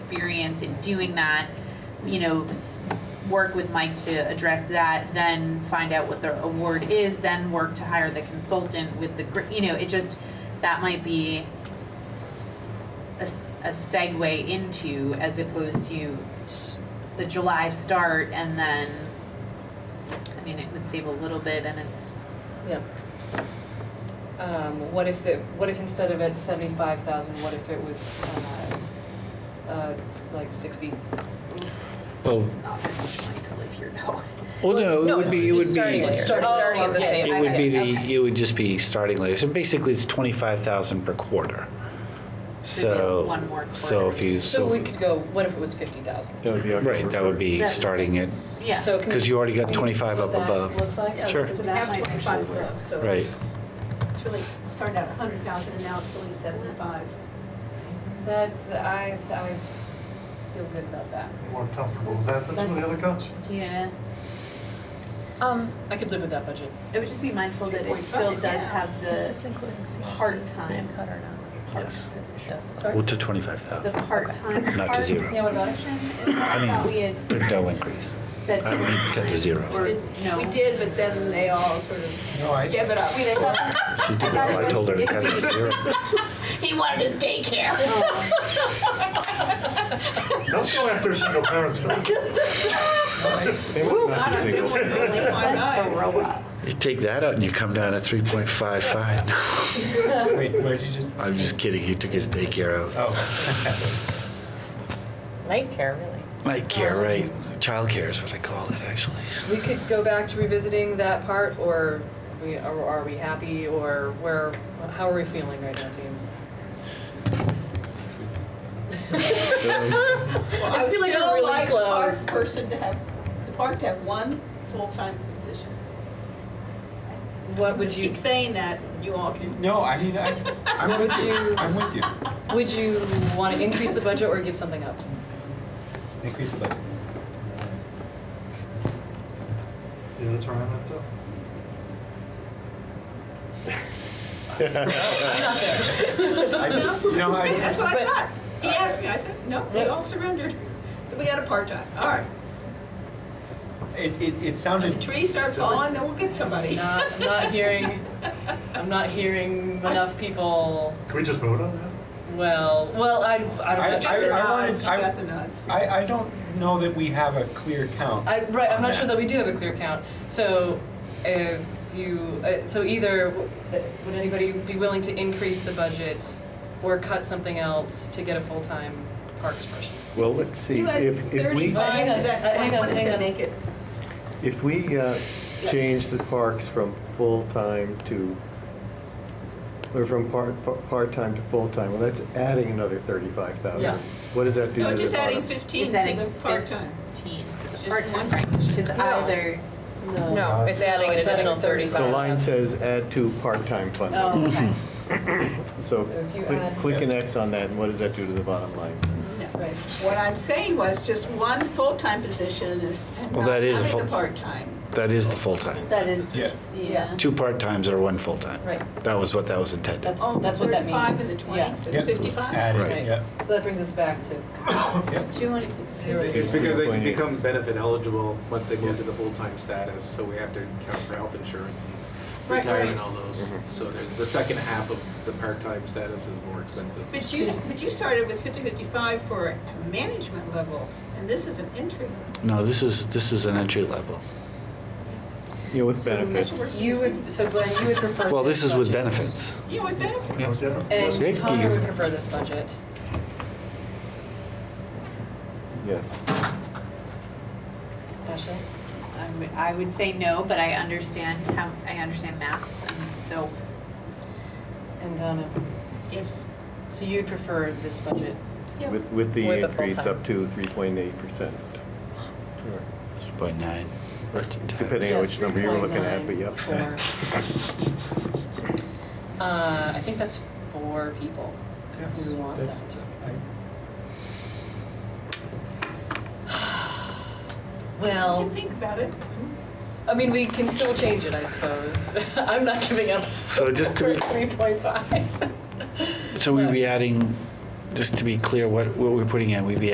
experience in doing that, you know, s- work with Mike to address that, then find out what the award is, then work to hire the consultant with the, gr- you know, it just, that might be a, s- a segue into as opposed to s- the July start and then, I mean, it would save a little bit and it's, Yeah. Um, what if it, what if instead of at seventy-five thousand, what if it was, uh, uh, like sixty? Well, it's not that much money to live here though. well, Well, no, it's- it would it's be, just it would be, starting It's later. it start- Oh, starting at the okay. same- I would got be it, the, okay. it would just be starting later. So basically, it's twenty-five thousand per quarter. So So, one more so if quarter. you, So we so, could go, what if it was fifty thousand? That would be October right, that would be That- starting at, Yeah. So can we? because you already got I mean, twenty-five see up what that above. Looks like? Oh, Yeah, Sure. because We That have might 25 actually work. above, so Right, it's really, started out 100,000 and now it's really 75. That's, I, I feel good about that. More comfortable with that, that's where the other comes. Yeah, Um, I could live with that budget. it would just be mindful that it still does have is the, this including CIP part-time. being cut or not? Yes. Doesn't. well, to twenty-five the thousand. part-time Not to part position. zero. Yeah, what about it? Is that I what mean- we had No increase. said? I mean, cut to zero. Or, no. We did, but then they all sort of No, I, gave it up. Wait, I thought, She did, thought it I told her to was- cut if it we- to zero. He wanted his daycare. oh, don't go after single parents though. They wouldn't have to single. that's a robot. You take that out and you come down to three point five five. Wait, where'd you just? I'm just kidding, he took his daycare out. Oh. Nightcare, really. Nightcare, right, childcare is what I call it, actually. We could go back to revisiting that part, or we, or are we happy, or where, how are we feeling right now, team? Well, I I just feel like we're still really like our close. person to have, the park to have one full-time position. What would Just you, Keep saying that, you all can. No, I mean, I, I'm would with you. you, I'm with you. would you wanna increase the budget or give something up? Increase the budget. Yeah, that's where I'm at though. No? You know, I, That's what I thought. He asked me, I said, no, we all surrendered. So we got a part-time, all right. it, it, it When the sounded, trees start falling, then we'll get somebody. Not, I'm not hearing, I'm not hearing enough people, Can we just vote on that? well, well, I, I You don't got know. I- the I wanted- nods, You I- got the nods. I, I don't know that we have a clear count. I, right, I'm on not sure that. that we do have a clear count. So if you, uh, so either, w- uh, would anybody be willing to increase the budget or cut something else to get a full-time parks person? Well, let's see, You had if, if we, But hang on, thirty-five to uh, that hang twenty, on, what does hang it on. make it? if we uh, change the parks from full-time to, or from part, par- part-time to full-time, well, that's adding another thirty-five Yeah. thousand. What does that do to the No, it's just adding bottom? fifteen It's to adding the part-time. fifteen to Just the part-time, one. right? Because either, No, it's adding an it's adding additional 35. The line 35. says add to part-time funding, Oh, okay. so So if you click- add- click an X on that, and what does that do to the bottom line? Right. What I'm saying was just one full-time position is, and Well, not that is a having the full- part-time. That is the full-time. That is, Yeah. yeah. Two part-times or one full-time. Right. That was what that was intended. That's, that's what that means. Oh, Thirty-five and the twenty, Yeah. Yeah. that's fifty-five. Right. Added, yeah. So that brings us back to, yeah. do you want to? It's because they When you- become benefit eligible once they go into the full-time status, so we have to account for health insurance and Right, right. retirement and all those. So there's, the second half of the part-time status is more expensive. But you, but you started with fifty, fifty-five for a management level, and this is an entry. level. No, this is, this is an entry level. You know, with So much benefits. work. you would, so Glenn, you would prefer Well, this is with budget. benefits. You would benefit. No, different. And Okay. Connor would prefer this budget. Yes. Ashley? I would- I would say no, but I understand how, I understand maths, and so And Donna? Yes. So you'd prefer this budget? With, with the With the increase full-time. up to three point eight percent. Three point nine. Depending on which number you're looking at, but yep. 3.94. Uh, I think that's four people who want That's, that. I, You Well, can think about it. I mean, we can still change it, I suppose. I'm not giving up So just to for be- 3.5. So we'd be adding, just to be clear, what, what we're putting in, we'd be